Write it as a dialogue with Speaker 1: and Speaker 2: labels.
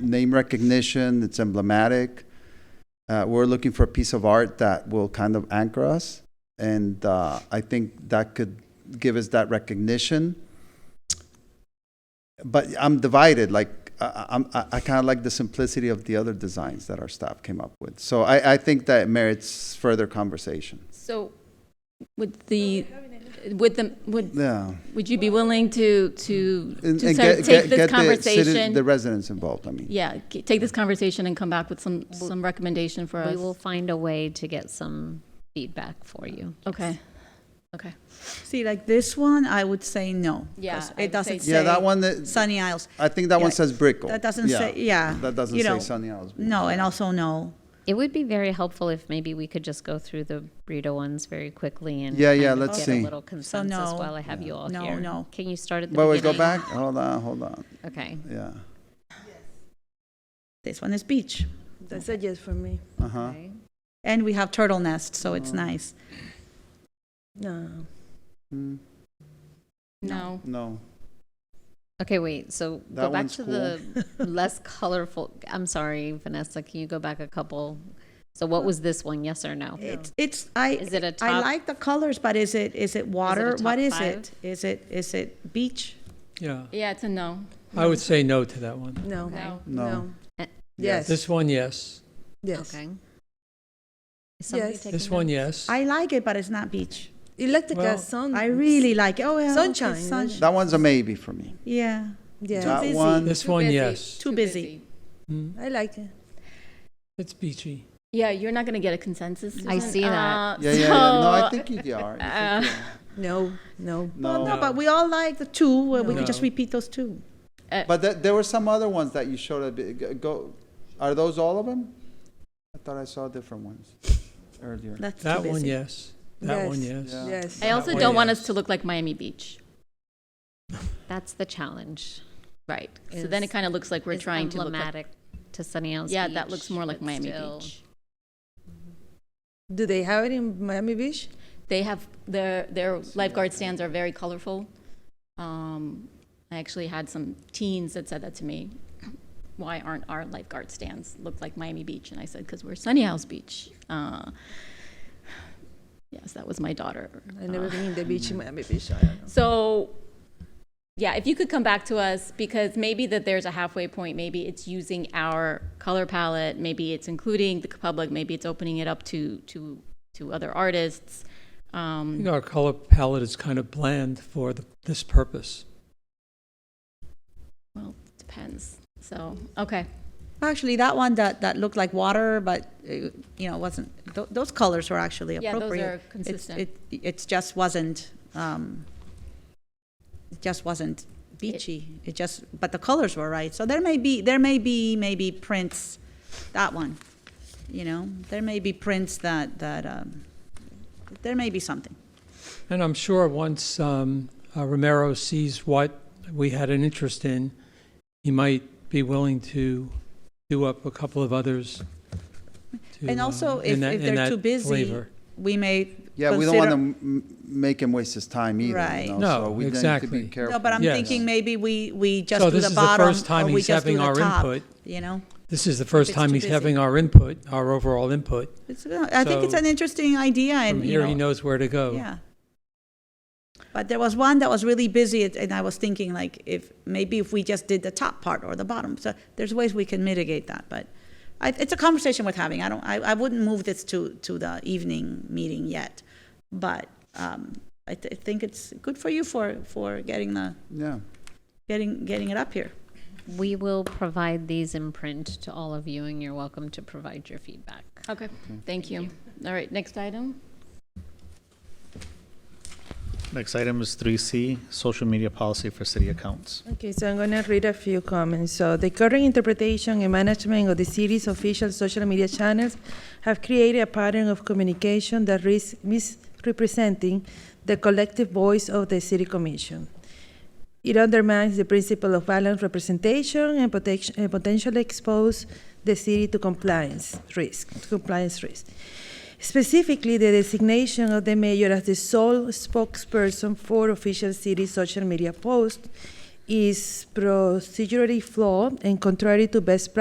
Speaker 1: name recognition, it's emblematic. Uh, we're looking for a piece of art that will kind of anchor us. And uh, I think that could give us that recognition. But I'm divided, like, I- I, I'm, I, I kind of like the simplicity of the other designs that our staff came up with. So I, I think that merits further conversation.
Speaker 2: So would the, would the, would,
Speaker 1: Yeah.
Speaker 2: would you be willing to, to,
Speaker 1: And-
Speaker 2: to
Speaker 1: and
Speaker 2: sort
Speaker 1: get-
Speaker 2: of
Speaker 1: get- get
Speaker 2: take this
Speaker 1: the citi- The
Speaker 2: conversation?
Speaker 1: residents involved, I mean.
Speaker 2: Yeah, g- take this conversation and come back with some, some recommendation for
Speaker 3: We will
Speaker 2: us.
Speaker 3: find a way to get some feedback for you.
Speaker 2: Okay, okay.
Speaker 4: See, like this one, I would say no. 'cause
Speaker 2: Yeah, I would
Speaker 4: It doesn't
Speaker 2: say
Speaker 4: say.
Speaker 2: no.
Speaker 1: Yeah, that one, that-
Speaker 4: Sunny Isles.
Speaker 1: I think that one
Speaker 4: Yeah,
Speaker 1: says Brickell.
Speaker 4: That doesn't say, yeah.
Speaker 1: That doesn't
Speaker 4: you know,
Speaker 1: say Sunny Isles.
Speaker 4: No, and also no.
Speaker 3: It would be very helpful if maybe we could just go through the burrito ones very quickly and
Speaker 1: Yeah, yeah,
Speaker 3: kind of
Speaker 1: let's
Speaker 3: get
Speaker 1: see.
Speaker 3: a little consensus
Speaker 4: no.
Speaker 3: while I have you all
Speaker 4: No,
Speaker 3: here.
Speaker 4: no.
Speaker 3: Can you start at the
Speaker 1: But we go
Speaker 3: beginning?
Speaker 1: back, hold on, hold on,
Speaker 3: Okay.
Speaker 1: yeah.
Speaker 4: This one is beach.
Speaker 5: That's a yes for me.
Speaker 1: Uh-huh.
Speaker 3: okay.
Speaker 4: And we have turtle nest, so it's nice.
Speaker 5: No.
Speaker 1: Mm,
Speaker 2: No,
Speaker 1: No,
Speaker 3: Okay, wait. So
Speaker 1: That
Speaker 3: go back
Speaker 1: one's
Speaker 3: to the less colorful. I'm sorry, Vanessa. Can you go back a couple? So what was this one? Yes or no?
Speaker 4: It's, it's, I.
Speaker 3: Is it a
Speaker 4: I
Speaker 3: top-
Speaker 4: like the colors, but is it, is it water?
Speaker 3: top
Speaker 4: What is
Speaker 3: five?
Speaker 4: it? Is it, is it beach?
Speaker 6: Yeah,
Speaker 2: yeah, it's a no.
Speaker 6: I would say no to that one.
Speaker 5: No.
Speaker 2: No.
Speaker 1: No.
Speaker 3: Eh,
Speaker 5: Yes,
Speaker 6: This one, yes.
Speaker 5: yes.
Speaker 3: Okay. Is somebody
Speaker 5: Yes.
Speaker 3: taking
Speaker 6: This one,
Speaker 3: notes?
Speaker 6: yes.
Speaker 4: I like it, but it's not beach.
Speaker 5: Electrical
Speaker 6: Well-
Speaker 5: sun.
Speaker 4: I really like, it. oh, yeah. okay,
Speaker 5: Sunshine, isn't
Speaker 4: sun-
Speaker 5: it?
Speaker 1: that one's a maybe for me.
Speaker 4: Yeah.
Speaker 5: Yeah,
Speaker 1: That
Speaker 4: busy.
Speaker 1: one,
Speaker 6: This
Speaker 2: Too
Speaker 6: one,
Speaker 2: busy.
Speaker 6: yes.
Speaker 4: Too busy.
Speaker 6: Mm,
Speaker 5: I like it.
Speaker 6: It's beachy.
Speaker 2: Yeah, you're not gonna get a consensus.
Speaker 3: I
Speaker 2: Susan.
Speaker 3: see that.
Speaker 2: Uh,
Speaker 1: yeah, yeah, yeah, no, I
Speaker 2: so-
Speaker 1: think you are. You think
Speaker 2: Uh,
Speaker 1: you are.
Speaker 5: No, no.
Speaker 4: Well,
Speaker 1: No,
Speaker 4: no, but we all like the two, where we
Speaker 6: No.
Speaker 4: could just repeat those two.
Speaker 2: uh,
Speaker 1: but there, there were some other ones that you showed, a bit- g- go, are those all of them? I thought I saw different ones earlier.
Speaker 4: That's too
Speaker 6: That one,
Speaker 4: busy.
Speaker 6: yes. That one,
Speaker 5: Yes.
Speaker 6: yes.
Speaker 1: Yeah.
Speaker 5: Yes.
Speaker 2: I also
Speaker 6: one,
Speaker 2: don't want
Speaker 6: yes.
Speaker 2: us to look like Miami Beach,
Speaker 3: That's the challenge.
Speaker 2: right? So then it
Speaker 3: Is-
Speaker 2: kind of looks like we're
Speaker 3: It's
Speaker 2: trying to look like.
Speaker 3: emblematic to Sunny Isles
Speaker 2: Yeah, that
Speaker 3: Beach,
Speaker 2: looks more like
Speaker 3: but
Speaker 2: Miami
Speaker 3: still-
Speaker 2: Beach.
Speaker 5: Do they have it in Miami Beach?
Speaker 2: They have, their, their lifeguard stands are very colorful. Um, I actually had some teens that said that to me. Why aren't our lifeguard stands look like Miami Beach? And I said, because we're Sunny House Beach. Uh, yes, that was my daughter.
Speaker 5: I never
Speaker 2: Uh,
Speaker 5: been in the beach
Speaker 1: mm.
Speaker 5: in Miami Beach. I don't know.
Speaker 2: So, yeah, if you could come back to us, because maybe that there's a halfway point, maybe it's using our color palette, maybe it's including the public, maybe it's opening it up to, to, to other artists.
Speaker 6: I
Speaker 2: Um,
Speaker 6: think our color palette is kind of bland for the, this purpose.
Speaker 2: well, depends. So, okay.
Speaker 4: Actually, that one that, that looked like water, but, uh, you know, wasn't, tho- those colors were actually
Speaker 2: Yeah, those
Speaker 4: appropriate.
Speaker 2: are
Speaker 4: It's,
Speaker 2: consistent.
Speaker 4: it, it just wasn't, um, it just wasn't beachy. It just, but the colors were right. So there may be, there may be maybe prints, that one, you know? There may be prints that, that, um, there may be something.
Speaker 6: And I'm sure once um, uh, Romero sees what we had an interest in, he might be willing to do up a couple of others. to,
Speaker 4: And also,
Speaker 6: uh,
Speaker 4: if-
Speaker 6: in that-
Speaker 4: if
Speaker 6: in
Speaker 4: they're
Speaker 6: that
Speaker 4: too busy,
Speaker 6: flavor.
Speaker 4: We may
Speaker 1: Yeah, we don't want to
Speaker 4: consider-
Speaker 1: m- make him waste his time either,
Speaker 4: Right.
Speaker 1: you know,
Speaker 6: No,
Speaker 1: so we need to
Speaker 6: exactly.
Speaker 1: be
Speaker 6: No,
Speaker 1: careful.
Speaker 4: No, but I'm
Speaker 6: Yes.
Speaker 4: thinking maybe we, we just
Speaker 6: So
Speaker 4: do
Speaker 6: this
Speaker 4: the
Speaker 6: is the
Speaker 4: bottom,
Speaker 6: first time
Speaker 4: or we
Speaker 6: he's
Speaker 4: just do
Speaker 6: having
Speaker 4: the
Speaker 6: our
Speaker 4: top,
Speaker 6: input.
Speaker 4: you know?
Speaker 6: This is the first
Speaker 4: it's
Speaker 6: time
Speaker 4: too
Speaker 6: he's
Speaker 4: busy.
Speaker 6: having our input, our overall input.
Speaker 4: It's, uh, I think it's
Speaker 6: So,
Speaker 4: an interesting idea
Speaker 6: From
Speaker 4: and, you
Speaker 6: here, he
Speaker 4: know,
Speaker 6: knows where to go.
Speaker 4: yeah. But there was one that was really busy it- and I was thinking like if, maybe if we just did the top part or the bottom. So there's ways we can mitigate that, but I, it's a conversation worth having. I don't, I, I wouldn't move this to, to the evening meeting yet. But, um, I th- I think it's good for you for, for getting the,
Speaker 1: Yeah,
Speaker 4: getting, getting it up here.
Speaker 3: We will provide these in print to all of you, and you're welcome to provide your feedback.
Speaker 2: Okay.
Speaker 4: Mm-hmm.
Speaker 2: Thank you. All right. Next item.
Speaker 7: Next item is 3C, social media policy for city accounts.
Speaker 5: Okay, so I'm going to read a few comments. So the current interpretation and management of the city's official social media channels have created a pattern of communication that risks misrepresenting the collective voice of the city commission. It undermines the principle of balanced representation and potential- and potentially expose the city to compliance risk, to compliance risk. Specifically, the designation of the mayor as the sole spokesperson for official city social media posts is procedurally flawed and contrary to best practice